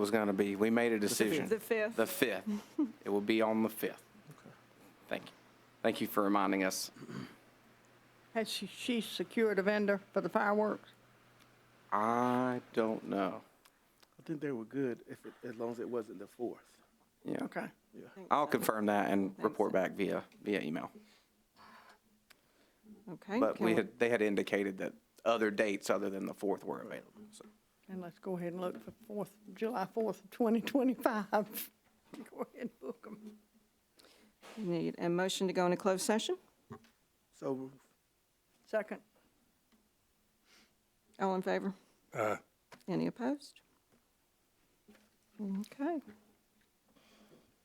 was going to be. We made a decision. The fifth. The 5th. It will be on the 5th. Thank you. Thank you for reminding us. Has she, she secured a vendor for the fireworks? I don't know. I think they were good if, it- as long as it wasn't the fourth. Yeah. Okay. I'll confirm that and report back via, via email. Okay. But can we had, they had indicated that other dates other than the 4th were available. So And let's go ahead and look for fourth, July fourth, twenty twenty-five. Go ahead and book them. Need a motion to go into closed session? So moved. Second. All in favor? Any opposed? Okay.